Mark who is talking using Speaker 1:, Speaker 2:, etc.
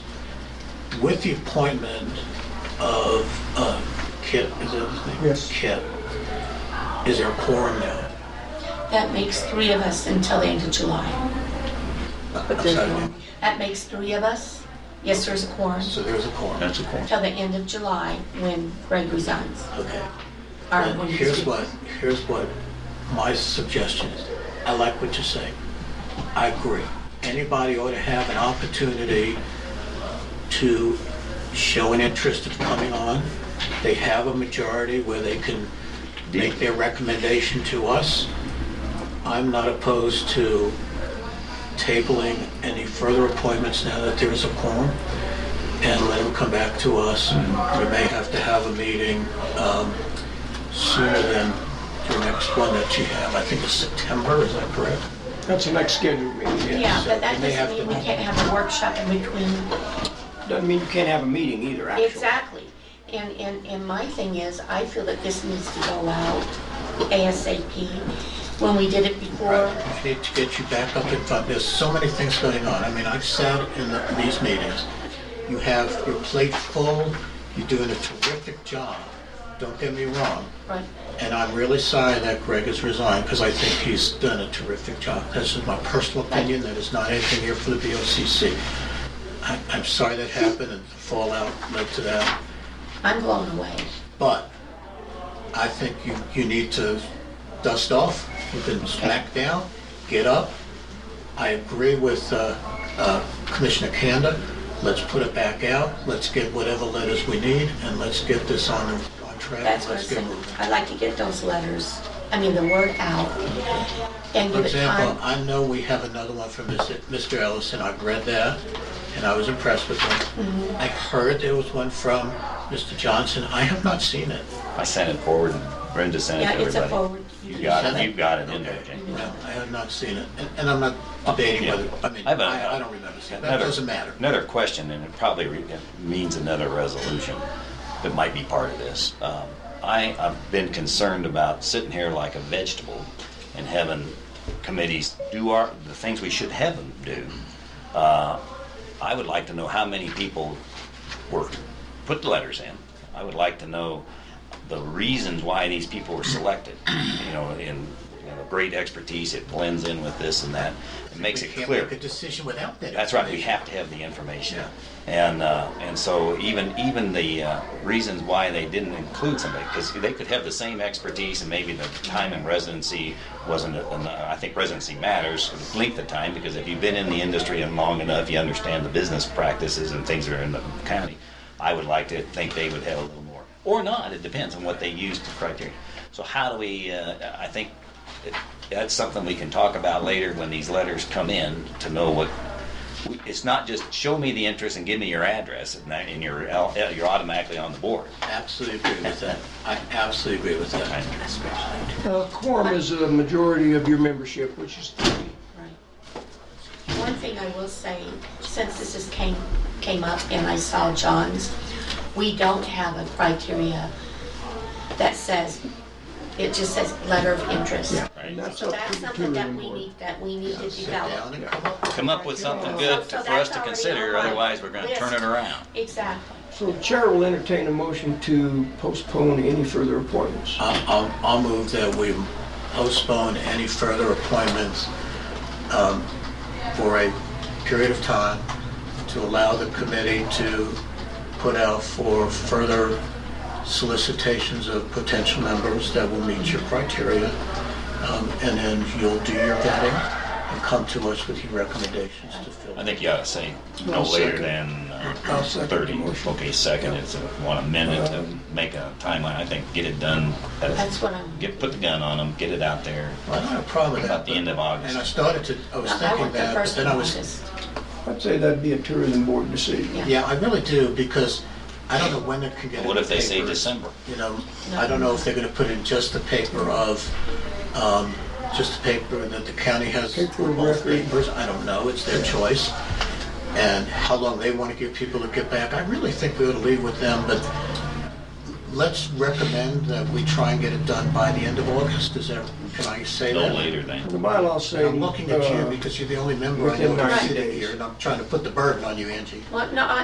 Speaker 1: with the appointment of uh, Kip, is that his name?
Speaker 2: Yes.
Speaker 1: Kip, is there a quorum now?
Speaker 3: That makes three of us until the end of July.
Speaker 1: I'm sorry,
Speaker 3: That makes three of us. Yes, there's a quorum
Speaker 1: So there's a quorum.
Speaker 4: That's a point.
Speaker 3: till the end of July when Greg resigns.
Speaker 1: Okay.
Speaker 3: Or
Speaker 1: And
Speaker 3: when he's-
Speaker 1: Here's what, here's what my suggestion is. I like what you're saying. I agree. Anybody ought to have an opportunity to show an interest of coming on. They have a majority where they can make their recommendation to us. I'm not opposed to tabling any further appointments now that there is a quorum and let them come back to us. We may have to have a meeting um, sooner than your next one that you have. I think it's September, is that correct?
Speaker 2: That's the next scheduled meeting,
Speaker 3: Yeah,
Speaker 2: yes.
Speaker 3: but that
Speaker 1: And they have
Speaker 3: doesn't mean
Speaker 1: to-
Speaker 3: we can't have a workshop in between.
Speaker 2: Doesn't mean you can't have a meeting either, actually.
Speaker 3: Exactly. And, and, and my thing is, I feel that this needs to go out ASAP. When we did it before,
Speaker 1: I need to get you back up in front. There's so many things going on. I mean, I've sat in the- these meetings. You have your plate full, you're doing a terrific job. Don't get me wrong.
Speaker 3: right,
Speaker 1: And I'm really sorry that Greg has resigned because I think he's done a terrific job. This is my personal opinion, that is not anything here for the BOCC. I- I'm sorry that happened and the fallout led to that,
Speaker 3: I'm blown away.
Speaker 1: but I think you, you need to dust off, you can smack down, get up. I agree with uh, uh, Commissioner Kanda, let's put it back out, let's get whatever letters we need, and let's get this on, on track.
Speaker 3: That's what I'm
Speaker 1: Let's get
Speaker 3: saying.
Speaker 1: moving.
Speaker 3: I'd like to get those letters, I mean, the word out and
Speaker 1: For
Speaker 3: give it
Speaker 1: example,
Speaker 3: time.
Speaker 1: I know we have another one from Mr. Mr. Ellison, I've read that, and I was impressed with
Speaker 3: Mm-hmm.
Speaker 1: him. I heard there was one from Mr. Johnson, I have not seen it.
Speaker 4: I sent it forward, and Brenda sent it
Speaker 3: Yeah,
Speaker 4: to
Speaker 3: it's a
Speaker 4: everybody.
Speaker 3: forward.
Speaker 4: You got it,
Speaker 1: sent it?
Speaker 4: you got it in there, Jane.
Speaker 1: No, I have not seen it, and- and I'm not debating
Speaker 4: Yeah.
Speaker 1: whether, I mean,
Speaker 4: I have a-
Speaker 1: I I don't remember seeing it, that
Speaker 4: Another-
Speaker 1: doesn't matter.
Speaker 4: Another question, and it probably re- it means another resolution that might be part of this. Um, I, I've been concerned about sitting here like a vegetable and having committees do our, the things we should have them do. Uh, I would like to know how many people were, put the letters in. I would like to know the reasons why these people were selected, you know, in, you know, great expertise, it blends in with this and that, it makes
Speaker 1: We
Speaker 4: it
Speaker 1: can't
Speaker 4: clear.
Speaker 1: make a decision without that
Speaker 4: That's right. We
Speaker 1: information.
Speaker 4: have to have the information. And uh, and so even even the uh, reasons why they didn't include somebody because they could have the same expertise and maybe the time in residency wasn't. Enough. I think residency matters the length of time because if you've been in the industry and long enough, you understand the business practices and things that are in the county. I would like to think they would have a little more or not. It depends on what they use to criteria. So how do we? Uh, I think that's something we can talk about later when these letters come in to know what it's not just show me the interest and give me your address and that, and you're el- you're automatically on the board.
Speaker 1: Absolutely agree with that, I absolutely agree with that.
Speaker 2: Uh, Quorum is a majority of your membership, which is three.
Speaker 3: Right. One thing I will say, since this is came, came up and I saw John's, we don't have a criteria that says, it just says letter of interest.
Speaker 2: And that's
Speaker 3: So
Speaker 2: up
Speaker 3: that's
Speaker 2: to the
Speaker 3: something that
Speaker 2: tourism
Speaker 3: we
Speaker 2: board.
Speaker 3: need, that we need to
Speaker 1: Sit down
Speaker 3: develop.
Speaker 1: and come up.
Speaker 4: Come up with something good to, for us to consider, otherwise we're going to turn it around.
Speaker 3: Exactly.
Speaker 2: So Chair will entertain a motion to postpone any further appointments.
Speaker 1: I'll, I'll- I'll move that we postpone any further appointments um, for a period of time to allow the committee to put out for further solicitations of potential members that will meet your criteria. Um, And then you'll do your vetting and come to us with your recommendations to fill.
Speaker 4: I think you ought to say no
Speaker 2: I'll
Speaker 4: later
Speaker 2: second.
Speaker 4: than uh,
Speaker 2: I'll second the
Speaker 4: 30.
Speaker 2: motion. Uh-huh.
Speaker 4: Okay, second is uh, one amendment to make a timeline. I think get it done. at-
Speaker 3: That's what I'm-
Speaker 4: Get put the gun on them. Get it out there.
Speaker 1: I don't have a problem with that.
Speaker 4: About the end of August.
Speaker 1: And I started to, I was
Speaker 3: I
Speaker 1: thinking
Speaker 3: want the
Speaker 1: that, but
Speaker 3: first
Speaker 1: then
Speaker 3: one
Speaker 1: I was
Speaker 2: I'd say that'd be a tourism board decision.
Speaker 3: Yeah.
Speaker 1: Yeah, I really do, because I don't know when it can get in
Speaker 4: What if
Speaker 1: the
Speaker 4: they say
Speaker 1: papers.
Speaker 4: December?
Speaker 1: You know, I don't know if they're gonna put in just the paper of, um, just the paper that the county has
Speaker 2: Paper
Speaker 1: for
Speaker 2: of
Speaker 1: both
Speaker 2: record.
Speaker 1: papers, I don't know, it's their choice. And how long they wanna give people to get back, I really think we ought to leave with them, but let's recommend that we try and get it done by the end of August, is that, can I say that?
Speaker 4: No later than.
Speaker 2: The bylaws say.
Speaker 1: I'm looking at you
Speaker 2: uh,
Speaker 1: because you're the only member I
Speaker 2: within
Speaker 1: know who's
Speaker 2: 90
Speaker 1: sitting
Speaker 2: days.
Speaker 1: here, and I'm trying to put the burden on you, Angie.
Speaker 3: Well, no, I-